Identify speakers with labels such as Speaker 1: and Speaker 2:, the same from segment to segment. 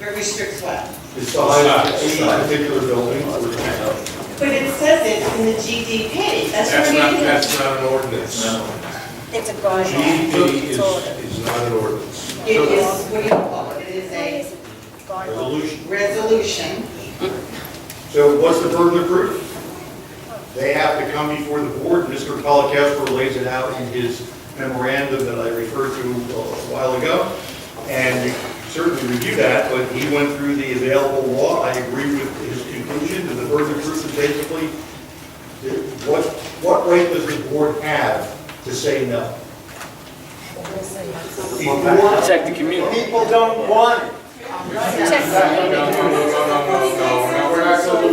Speaker 1: It restricts what?
Speaker 2: The size of any particular building or tenant.
Speaker 1: But it says it in the GDP, that's
Speaker 2: That's
Speaker 1: where you
Speaker 2: not,
Speaker 1: can.
Speaker 2: that's not an ordinance.
Speaker 3: It's a guideline.
Speaker 2: GDP E is,
Speaker 3: It's ordered.
Speaker 2: is not an ordinance.
Speaker 1: It is, what do you call it, it is a
Speaker 3: Guideline.
Speaker 2: Resolution.
Speaker 1: resolution.
Speaker 2: So what's the burden of proof? They have to come before the board, Mr. Polakasper lays it out in his memorandum that I referred to a while ago, and you certainly review that, but he went through the available law, I agree with his conclusion, and the burden of proof is basically, what, what right does the board have to say no? Before,
Speaker 4: Protect the community.
Speaker 5: People don't want it.
Speaker 6: we're not gonna lose our minds.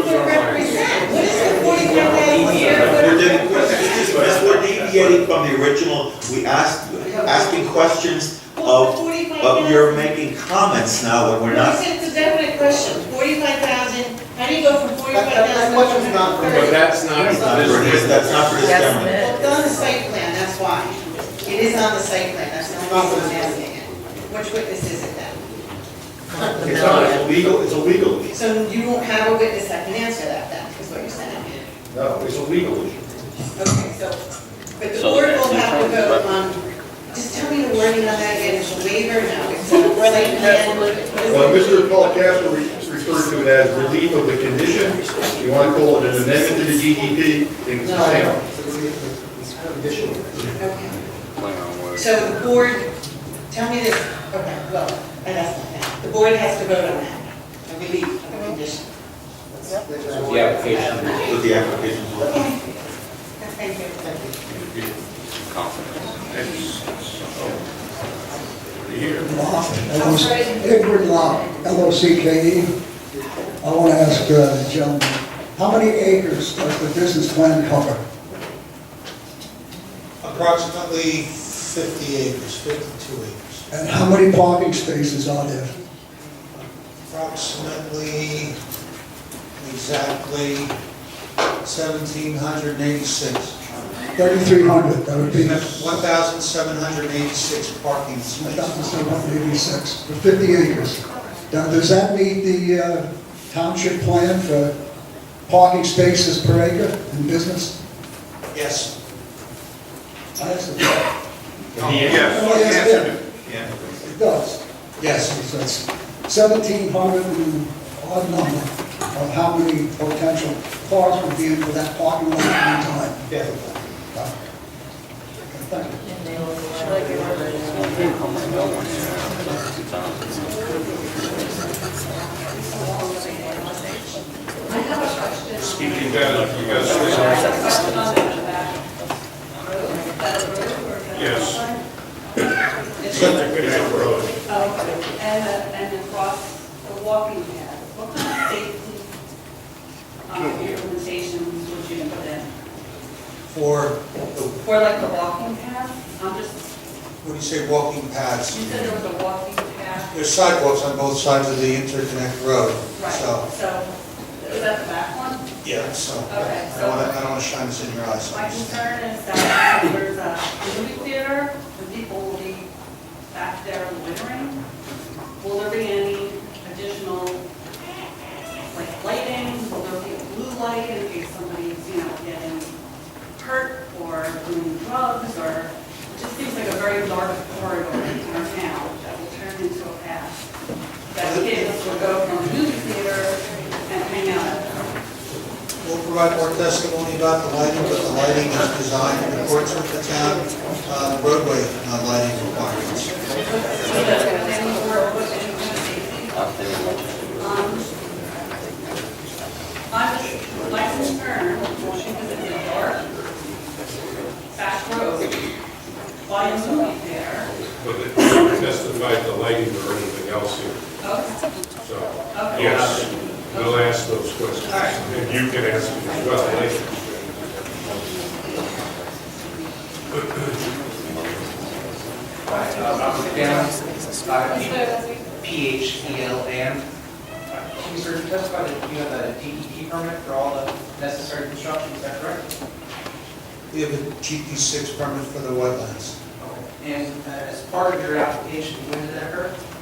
Speaker 1: Represent, what is the forty-one thousand
Speaker 7: We're
Speaker 1: square
Speaker 7: doing questions, this, we're deviating from the original, we asked, asking questions
Speaker 1: foot?
Speaker 7: of,
Speaker 1: Forty-five
Speaker 7: of you're
Speaker 1: thousand.
Speaker 7: making comments now when we're not.
Speaker 1: It's a definite question, forty-five thousand, how do you go from forty-five
Speaker 5: That- that-
Speaker 1: thousand?
Speaker 5: that question's not for me.
Speaker 2: But that's not,
Speaker 7: That's not for this, that's not for this gentleman.
Speaker 1: Well, it's on the site plan, that's why. It is on the site plan, that's the only reason I'm asking it. Which witness is it then?
Speaker 2: it's not, it's illegal, it's illegal.
Speaker 1: So you won't have a witness that can answer that then, is what you're saying?
Speaker 2: No, it's a legal issue.
Speaker 1: Okay, so, but the
Speaker 4: So
Speaker 1: board will
Speaker 4: the
Speaker 1: have to
Speaker 4: terms,
Speaker 1: vote on, just tell me the wording on that again, it's a waiver, no, it's a site plan.
Speaker 2: Well, Mr. Paul Castro re- referred to it as relief of the condition. You want to call it an amendment to the DDP, then it's the same.
Speaker 5: It's kind of additional.
Speaker 1: Okay.
Speaker 4: Play on words.
Speaker 1: So the board, tell me this, okay, well, I asked not that. The board has to vote on that, a relief of the condition.
Speaker 6: The application.
Speaker 7: With the application.
Speaker 1: Okay. Thank you. Thank
Speaker 8: Edward Locke, L-O-C-K-E. E. I want to ask uh, the gentleman, how many acres does the business plan cover?
Speaker 9: Approximately 50 acres, 52 acres.
Speaker 8: And how many parking spaces are there?
Speaker 9: Approximately, exactly 1,786.
Speaker 8: 3,300, that would be
Speaker 9: 1,786 parking spaces.
Speaker 8: 1,786 for 50 acres. Now, does that meet the uh, township plan for parking spaces per acre in business?
Speaker 9: Yes,
Speaker 8: I asked it.
Speaker 2: Yes.
Speaker 8: Yes, It does.
Speaker 9: yes.
Speaker 8: So it's 1,700 and odd number of how many potential cars would be in for that parking lot at one time.
Speaker 9: Yeah.
Speaker 8: Thank you.
Speaker 2: Speaking down, you guys. Yes.
Speaker 10: Oh, and, a- and across the walking path, what kind of safety um, implementations would you put in?
Speaker 9: For, what
Speaker 10: For like the walking path, I'm just,
Speaker 9: do you say, walking paths?
Speaker 10: you said there was a walking path,
Speaker 9: There's sidewalks on both sides of the interconnect road,
Speaker 10: right, so,
Speaker 9: so,
Speaker 10: is that the back one?
Speaker 9: yeah, so.
Speaker 10: Okay,
Speaker 9: I
Speaker 10: so-
Speaker 9: don't want to, I don't want to shine this in your eyes.
Speaker 10: My concern is that there's a movie theater, the people will be back there loitering. Will there be any additional, like, lighting? Will there be a blue light in case somebody's, you know, getting hurt or doing drugs or? It just seems like a very dark corridor in our town that will turn into a path. That kids will go from the movie theater and hang out.
Speaker 9: We'll provide more testimony about the lighting, but the lighting is designed in accordance with the town uh, roadway uh, lighting requirements.
Speaker 10: See, that's gonna be any more, any more safety.
Speaker 4: Out there.
Speaker 10: Um, I'm just, my concern, because it's a dark, back road, why is somebody there?
Speaker 11: But it testified to lighting or anything else here,
Speaker 10: Oh,
Speaker 11: so,
Speaker 10: okay.
Speaker 11: yes, we'll ask those questions.
Speaker 10: All right.
Speaker 11: And you can ask them as well later.
Speaker 6: E Robert Down, P-H-E-L-M. Mr. You testified that you have a DEP permit for all the necessary construction, is that correct?
Speaker 9: We have a GP6 permit for the wetlands.
Speaker 6: And uh, as part of your application, when did that occur?